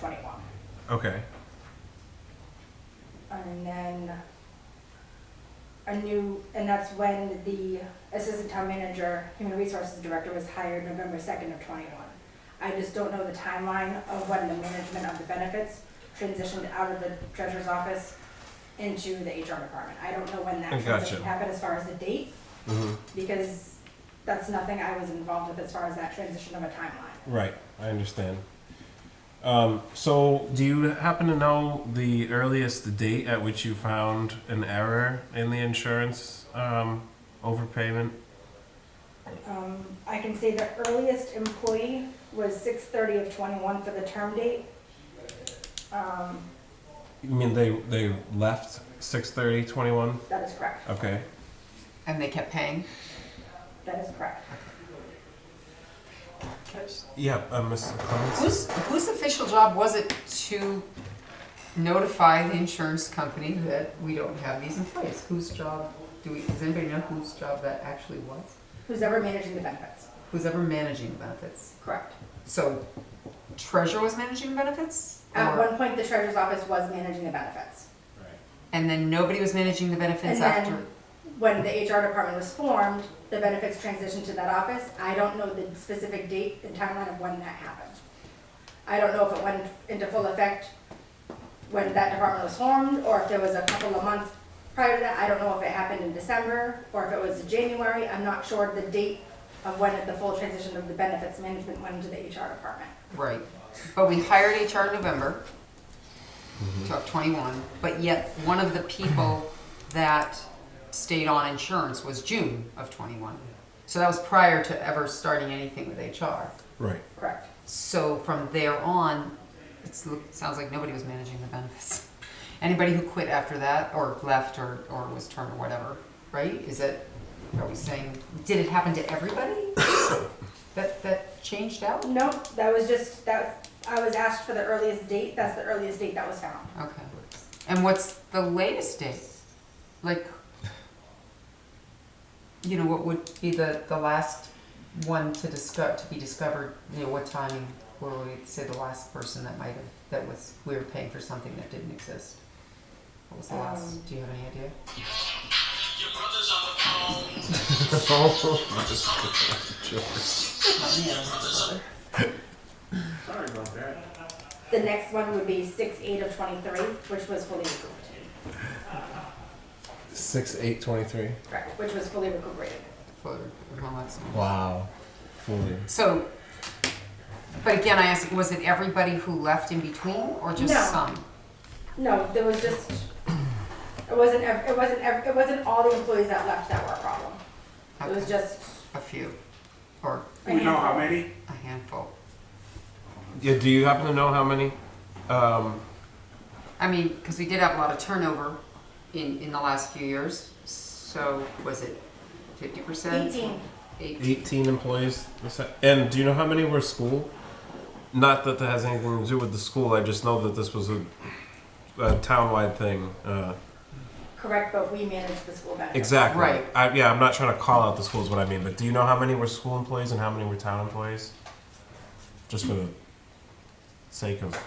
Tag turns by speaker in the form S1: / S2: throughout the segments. S1: twenty-one.
S2: Okay.
S1: And then a new, and that's when the assistant town manager, human resources director was hired November second of twenty-one. I just don't know the timeline of when the management of the benefits transitioned out of the treasurer's office into the HR department. I don't know when
S2: I
S1: that
S2: gotcha.
S1: transition happened as far as the date,
S2: Mm-hmm.
S1: because that's nothing I was involved with as far as that transition of a timeline.
S2: Right. I understand. Um, so, do you happen to know the earliest date at which you found an error in the insurance um, overpayment?
S1: Um, I can say the earliest employee was six thirty of twenty-one for the term date. Um,
S2: You mean they they left 6:30 21?
S1: that is correct,
S2: Okay.
S3: And they kept paying?
S1: that is correct.
S2: Yeah, uh, Mr. Clements.
S3: Whose, whose official job was it to notify the insurance company that we don't have these in place? Whose job, do we, does anybody know whose job that actually was?
S1: Who's ever managing the benefits?
S3: Who's ever managing benefits?
S1: Correct.
S3: So treasurer was managing benefits?
S1: At
S3: Or-
S1: one point, the treasurer's office was managing the benefits.
S3: And then nobody was managing the benefits
S1: And
S3: after?
S1: then, when the HR department was formed, the benefits transitioned to that office. I don't know the specific date and timeline of when that happened. I don't know if it went into full effect when that department was formed, or if there was a couple of months prior to that. I don't know if it happened in December, or if it was January. I'm not sure the date of when the full transition of the benefits management went into the HR department.
S3: Right, but we hired HR in November of twenty-one, but yet one of the people that stayed on insurance was June of twenty-one. So that was prior to ever starting anything with HR.
S2: Right.
S1: Correct.
S3: So from there on, it's, it sounds like nobody was managing the benefits. Anybody who quit after that, or left, or, or was termed, or whatever, right? Is it, are we saying, did it happen to everybody? That, that changed out?
S1: No, that was just, that, I was asked for the earliest date. That's the earliest date that was found.
S3: Okay. And what's the latest date? Like, you know, what would be the, the last one to discover, to be discovered, you know, what timing were we, say, the last person that might have, that was, we were paying for something that didn't exist? What was the
S1: Um,
S3: last, do you have any idea? Not me, I was just-
S4: Sorry about that.
S1: The next one would be six eight of twenty-three, which was fully recouped,
S2: 6 8 23.
S1: correct, which was fully recuperated.
S3: for- for my last one.
S2: Wow. Fully.
S3: So, but again, I asked, was it everybody who left in between, or just
S1: No.
S3: some?
S1: No, there was just, it wasn't, ev- it wasn't, ev- it wasn't all the employees that left that were a problem. It was
S3: Okay.
S1: just
S3: A few, or
S1: a
S4: We know how
S1: handful.
S4: many?
S3: a handful?
S2: Yeah, do you happen to know how many? Um,
S3: I mean, because we did have a lot of turnover in, in the last few years, so was it fifty percent?
S1: Eighteen,
S3: Eight,
S2: 18 employees. And do you know how many were school? Not that that has anything to do with the school. I just know that this was a, a townwide thing. Uh,
S1: correct, but we managed the school benefits.
S2: exactly.
S3: Right.
S2: I, yeah, I'm not trying to call out the schools, what I mean. But do you know how many were school employees and how many were town employees? Just for the sake of.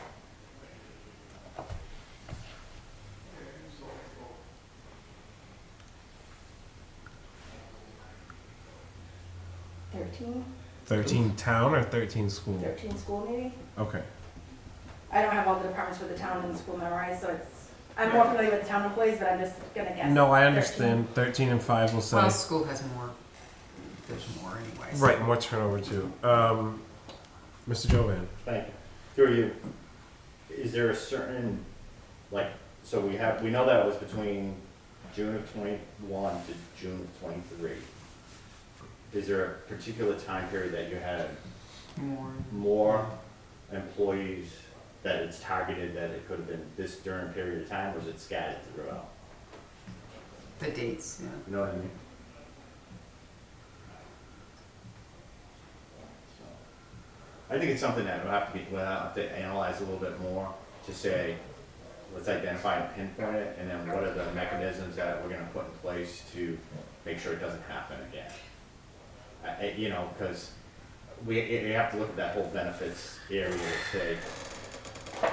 S1: Thirteen,
S2: 13 town or 13 school?
S1: thirteen school maybe?
S2: Okay.
S1: I don't have all the departments for the town and school memorized, so it's, I'm more familiar with the town employees, but I'm just gonna guess.
S2: No, I understand. 13 and 5 will say.
S3: well, school has more, there's more anyways.
S2: Right, more turnover too. Um, Mr. Jovan.
S5: Thank you. Through you, is there a certain, like, so we have, we know that was between June of twenty-one to June of twenty-three. Is there a particular time period that you had
S3: More,
S5: more employees that it's targeted, that it could have been this during period of time, or is it scattered throughout?
S3: the dates, yeah.
S5: You know what I mean? So, I think it's something that we'll have to be, we'll have to analyze a little bit more to say, let's identify and pinpoint it, and then what are the mechanisms that we're gonna put in place to make sure it doesn't happen again? I, I- you know, cause we, you you have to look at that whole benefits area and say,